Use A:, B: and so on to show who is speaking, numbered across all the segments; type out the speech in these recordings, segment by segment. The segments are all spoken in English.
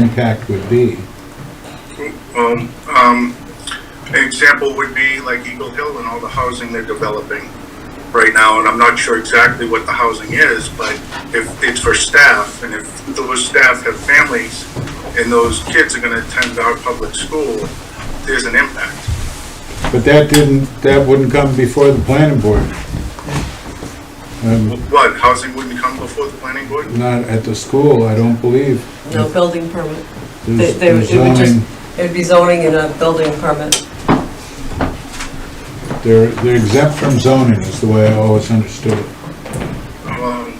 A: impact would be.
B: Well, um, an example would be like Eagle Hill and all the housing they're developing right now, and I'm not sure exactly what the housing is, but if it's for staff, and if those staff have families, and those kids are gonna attend our public school, there's an impact.
A: But that didn't, that wouldn't come before the planning board. Um,
B: What, housing wouldn't come before the planning board?
A: Not at the school, I don't believe.
C: No building permit. They,
A: There's-
C: they would-
A: there's
C: it would
A: zoning,
C: just, it would be zoning and a building permit.
A: They're they're exempt from zoning is the way I always understood it.
B: Um,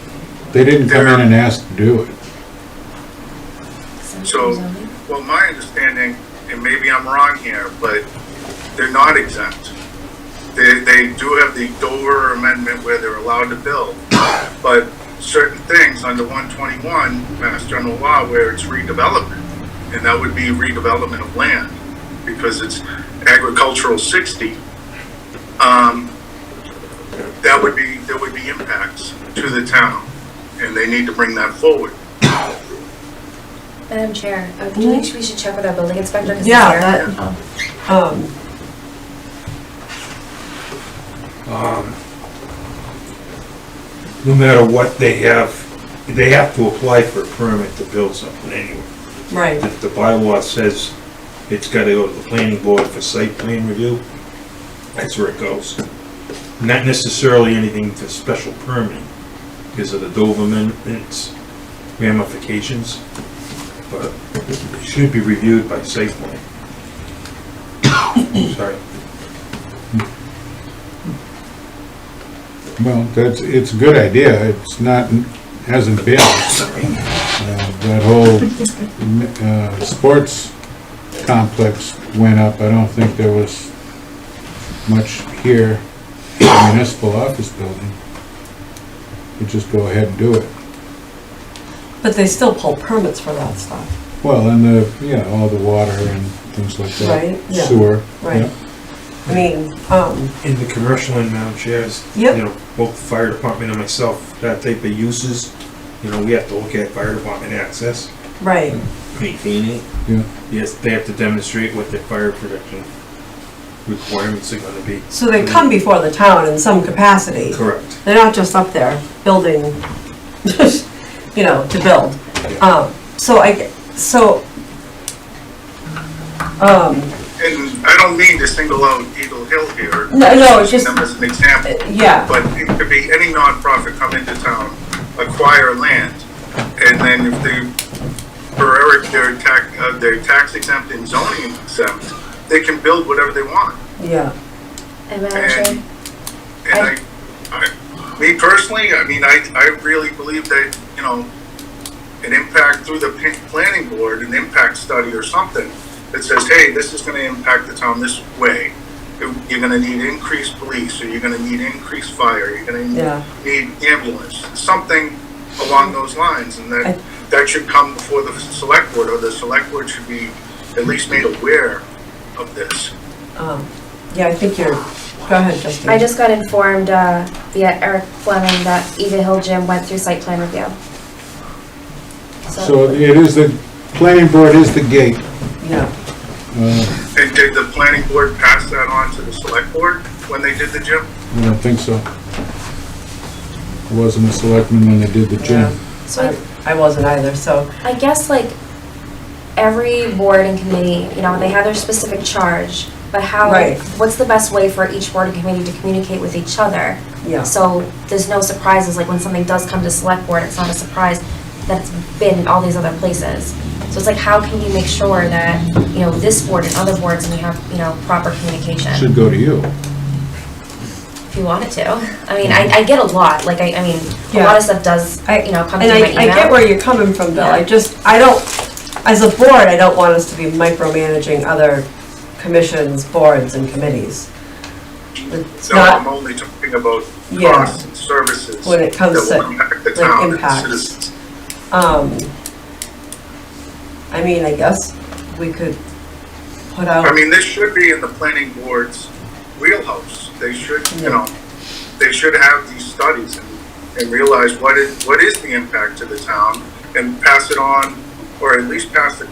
A: They didn't come in
B: They're-
A: and ask to do it.
B: So, well, my understanding, and maybe I'm wrong here, but they're not exempt. They, they do have the Dover Amendment where they're allowed to build, but certain things under one twenty-one, Mass General Law, where it's redevelopment, and that would be redevelopment of land, because it's agricultural sixty. Um, that would be, there would be impacts to the town, and they need to bring that forward.
D: Madam Chair, uh, do you think we should check with our building inspector? 'cause he's
C: Mm-hmm. Yeah,
D: here?
C: that-
D: Oh.
C: Um,
E: no matter what they have, they have to apply for a permit to build something anyway.
C: right,
E: If the bylaw says it's gotta go to the planning board for site plan review, that's where it goes. Not necessarily anything for special permit, because of the Dover amendments ramifications, but it should be reviewed by site plan. Sorry.
A: Well, that's, it's a good idea, it's not, hasn't been. Uh, That whole uh, sports complex went up, I don't think there was much here, in the municipal office building. You just go ahead and do it.
C: but they still pull permits for that stuff,
A: Well, and the, you know, all the water and things like
C: Right,
A: that,
C: yeah,
A: sewer.
C: right?
A: yeah.
C: I mean, um,
E: in the commercial and Madam Chairs.
C: Yep.
E: You know, both the fire department and myself, that type of uses, you know, we have to look at fire department access,
C: right,
E: maintain it.
A: Yeah.
E: Yes, they have to demonstrate what their fire protection requirements are gonna be.
C: so they come before the town in some capacity.
E: Correct.
C: They're not just up there building, you know, to build. Um, so I, g- so, um,
B: And I don't mean to single out Eagle Hill here.
C: No, no, it's just-
B: Them as an example.
C: yeah.
B: But it could be any nonprofit come into town, acquire land, and then if they, for Eric, they're tax, uh, they're tax exempt and zoning exempt, they can build whatever they want.
C: yeah,
D: And Madam Chair,
B: And I, I, me personally, I mean, I, I really believe that, you know, an impact through the p- planning board, an impact study or something that says, hey, this is gonna impact the town this way. You're you're gonna need increased police, or you're gonna need increased fire, you're gonna
C: Yeah.
B: need ambulance, something along those lines, and
C: I-
B: that, that should come before the select board, or the select board should be at least made aware of this.
C: um, yeah, I think you're, go ahead, Justine.
D: I just got informed uh, via Eric Fleming that Eva Hill Gym went through site plan review.
A: So it is the, planning board is the gate.
C: Yeah.
A: Uh,
B: And did the planning board pass that on to the select board when they did the gym?
A: I don't think so. I wasn't a selectman when they did the gym.
D: So I-
C: I I wasn't either, so,
D: I guess like every board and committee, you know, they have their specific charge, but how,
C: Right.
D: what's the best way for each board and committee to communicate with each other?
C: yeah.
D: So there's no surprises, like when something does come to select board, it's not a surprise that it's been all these other places. So it's like, how can you make sure that, you know, this board and other boards, and we have, you know, proper communication?
A: Should go to you.
D: If you wanted to. I mean, I, I get a lot, like, I, I mean, a lot
C: Yeah.
D: of stuff does,
C: I-
D: you know, come through
C: And
D: my
C: I, I
D: email.
C: get where you're coming from, Bill, I
D: Yeah.
C: just, I don't, as a board, I don't want us to be micromanaging other commissions, boards, and committees. It's
B: No, I'm
C: not,
B: only talking about
C: Yeah.
B: costs and services.
C: When it comes
B: that will
C: to,
B: impact the
C: like,
B: town and the
C: impacts.
B: citizens.
C: um, I mean, I guess we could put
B: I
C: out,
B: mean, this should be in the planning board's wheelhouse. They should,
C: Yeah.
B: you know, they should have these studies and, and realize what is, what is the impact to the town and pass it on or at least pass the